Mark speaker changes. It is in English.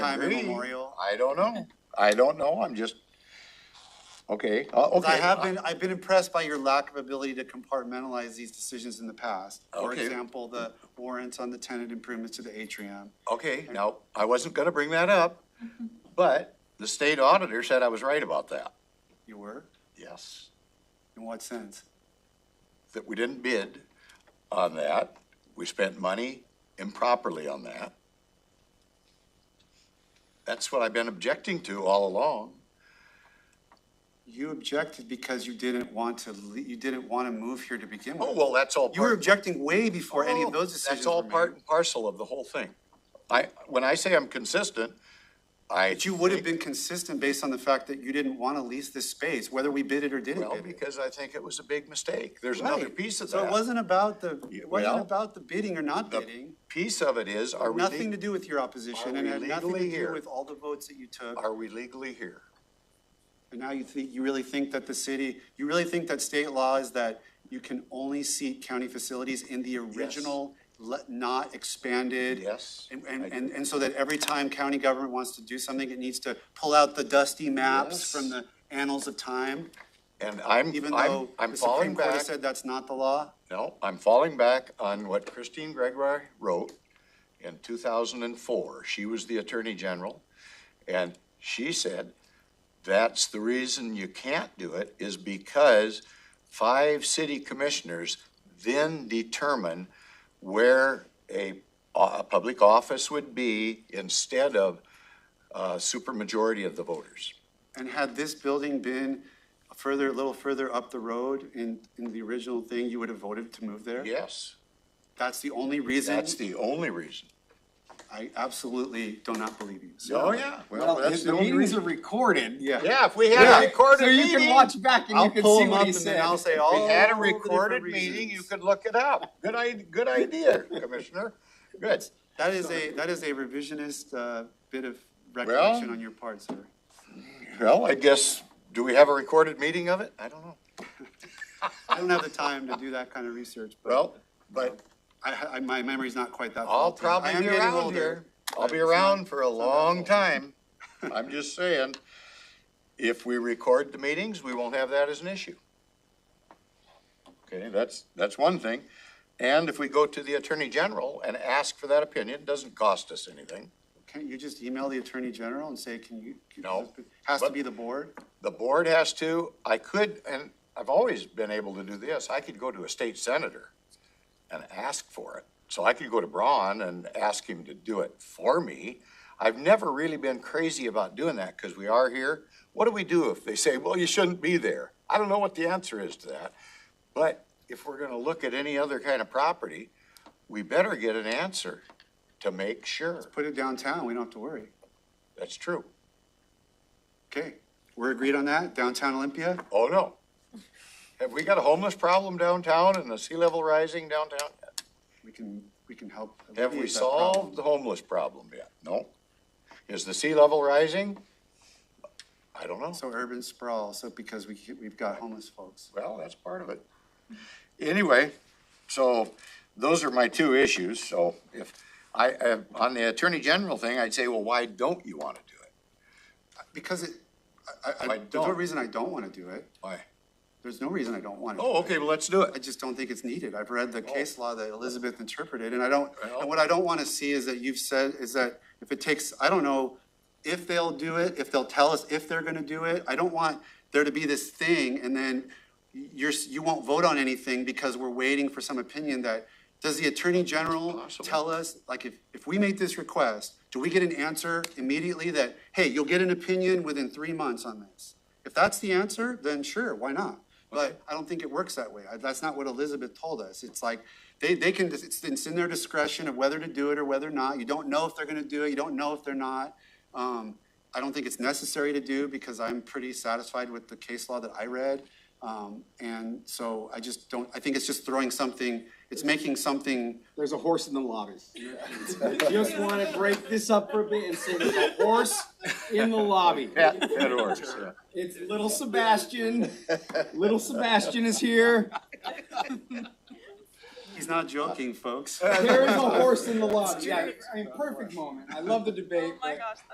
Speaker 1: time
Speaker 2: agree.
Speaker 1: immemorial.
Speaker 2: I don't know. I don't know. I'm just, okay, uh,
Speaker 1: 'Cause
Speaker 2: okay.
Speaker 1: I have been, I've been impressed by your lack of ability to compartmentalize these decisions in the past. For
Speaker 2: Okay.
Speaker 1: example, the warrants on the tenant improvements to the atrium.
Speaker 2: Okay, now, I wasn't gonna bring that up, but the state auditor said I was right about that.
Speaker 1: You were?
Speaker 2: Yes,
Speaker 1: In what sense?
Speaker 2: that we didn't bid on that. We spent money improperly on that. That's what I've been objecting to all along.
Speaker 1: You objected because you didn't want to, le- you didn't want to move here to begin
Speaker 2: Oh,
Speaker 1: with.
Speaker 2: well, that's all part.
Speaker 1: You were objecting way before any of
Speaker 2: Oh,
Speaker 1: those decisions
Speaker 2: That's all
Speaker 1: were made.
Speaker 2: part and parcel of the whole thing. I, when I say I'm consistent, I.
Speaker 1: But you would have
Speaker 2: think-
Speaker 1: been consistent based on the fact that you didn't want to lease this space, whether we bid it or didn't
Speaker 2: Well,
Speaker 1: bid it.
Speaker 2: because I think it was a big mistake. There's another
Speaker 1: Right.
Speaker 2: piece of
Speaker 1: So it
Speaker 2: that.
Speaker 1: wasn't about the,
Speaker 2: Yeah,
Speaker 1: it
Speaker 2: well,
Speaker 1: wasn't about the bidding or not
Speaker 2: the-
Speaker 1: bidding.
Speaker 2: Piece of it is, are we,
Speaker 1: Nothing to
Speaker 2: le-
Speaker 1: do with your opposition
Speaker 2: are
Speaker 1: and
Speaker 2: we
Speaker 1: had nothing to
Speaker 2: legally
Speaker 1: do
Speaker 2: here?
Speaker 1: with all the votes that you took.
Speaker 2: are we legally here?
Speaker 1: And now you think, you really think that the city, you really think that state law is that you can only seat county facilities in the original, le- not expanded?
Speaker 2: Yes,
Speaker 1: And, and,
Speaker 2: I do.
Speaker 1: and and so that every time county government wants to do something, it needs to pull out the dusty maps
Speaker 2: Yes.
Speaker 1: from the annals of time?
Speaker 2: And I'm,
Speaker 1: even
Speaker 2: I'm,
Speaker 1: though
Speaker 2: I'm
Speaker 1: the
Speaker 2: falling
Speaker 1: Supreme Court
Speaker 2: back,
Speaker 1: has said that's not the law?
Speaker 2: no, I'm falling back on what Christine Gregoire wrote in two thousand and four. She was the Attorney General, and she said, that's the reason you can't do it, is because five city commissioners then determine where a, a public office would be instead of a supermajority of the voters.
Speaker 1: And had this building been further, a little further up the road in, in the original thing, you would have voted to move there?
Speaker 2: Yes,
Speaker 1: That's the only reason?
Speaker 2: that's the only reason.
Speaker 1: I absolutely do not believe you. So-
Speaker 2: Oh, yeah.
Speaker 3: Well, the meetings are recorded.
Speaker 1: Yeah.
Speaker 2: Yeah, if we
Speaker 3: Yeah,
Speaker 2: had a recorded
Speaker 3: So you
Speaker 2: meeting,
Speaker 3: can watch back and
Speaker 1: I'll
Speaker 3: you can
Speaker 1: pull
Speaker 3: see
Speaker 1: them up
Speaker 3: what he
Speaker 1: and then
Speaker 3: said.
Speaker 1: I'll say,
Speaker 2: if
Speaker 1: oh.
Speaker 2: we had a recorded meeting, you could look it up. Good i, good idea, Commissioner. Good.
Speaker 1: That is a, that is a revisionist, uh, bit of recollection on your part, sir.
Speaker 2: Well, I guess, do we have a recorded meeting of it? I don't know.
Speaker 1: I don't have the time to do that kind of research, but
Speaker 2: Well, but
Speaker 1: I, ha- I, my memory's not quite that.
Speaker 2: I'll
Speaker 1: faulty. I
Speaker 2: probably
Speaker 1: am
Speaker 2: be
Speaker 1: getting
Speaker 2: around
Speaker 1: older.
Speaker 2: here. I'll
Speaker 1: but
Speaker 2: be
Speaker 1: it's not-
Speaker 2: around for a
Speaker 1: it's not that
Speaker 2: long
Speaker 1: old.
Speaker 2: time. I'm just saying, if we record the meetings, we won't have that as an issue. Okay, that's, that's one thing. And if we go to the Attorney General and ask for that opinion, it doesn't cost us anything.
Speaker 1: Can't you just email the attorney general and say, can you? can-
Speaker 2: No.
Speaker 1: Has to
Speaker 2: But-
Speaker 1: be the board?
Speaker 2: The board has to, I could, and I've always been able to do this, I could go to a state senator and ask for it. So I could go to Braun and ask him to do it for me. I've never really been crazy about doing that because we are here. What do we do if they say, well, you shouldn't be there? I don't know what the answer is to that. But if we're going to look at any other kind of property, we better get an answer to make sure.
Speaker 1: Put it downtown, we don't have to worry.
Speaker 2: That's true.
Speaker 1: Okay, we're agreed on that, downtown Olympia?
Speaker 2: Oh, no. Have we got a homeless problem downtown and the sea level rising downtown?
Speaker 1: We can, we can help.
Speaker 2: Have we
Speaker 1: alleviate that problem.
Speaker 2: solved the homeless problem yet? No. Is the sea level rising? I don't know.
Speaker 1: So urban sprawl, so because we, ke- we've got homeless folks.
Speaker 2: Well, that's part of it. Anyway, so those are my two issues, so if, I, I- on the Attorney General thing, I'd say, well, why don't you want to do it?
Speaker 1: Because it, I, I,
Speaker 2: Why
Speaker 1: I- there's no
Speaker 2: don't?
Speaker 1: reason I don't want to do it.
Speaker 2: Why?
Speaker 1: There's no reason I don't want to.
Speaker 2: Oh, okay, well, let's do
Speaker 1: I
Speaker 2: it.
Speaker 1: just don't think it's needed. I've read the case law that Elizabeth interpreted, and I don't,
Speaker 2: Well-
Speaker 1: and what I don't want to see is that you've said, is that if it takes, I don't know if they'll do it, if they'll tell us if they're gonna do it. I don't want there to be this thing, and then you're, s- you won't vote on anything because we're waiting for some opinion that, does the Attorney General
Speaker 2: Possible.
Speaker 1: tell us, like, if, if we make this request, do we get an answer immediately that, hey, you'll get an opinion within three months on this? If that's the answer, then sure, why not? But I don't think it works that way. I- That's not what Elizabeth told us. It's like, they, they can, it's, it's in their discretion of whether to do it or whether or not. You don't know if they're gonna do it, you don't know if they're not. Um, I don't think it's necessary to do because I'm pretty satisfied with the case law that I read. Um, and so I just don't, I think it's just throwing something, it's making something,
Speaker 3: There's a horse in the lobby. Just want to break this up for a bit and say there's a horse in the lobby. It's little Sebastian. Little Sebastian is here.
Speaker 1: he's not joking, folks.
Speaker 3: There is a horse in the lobby. Yeah, I mean, perfect moment. I love the debate.
Speaker 4: Oh my
Speaker 3: but-
Speaker 4: gosh,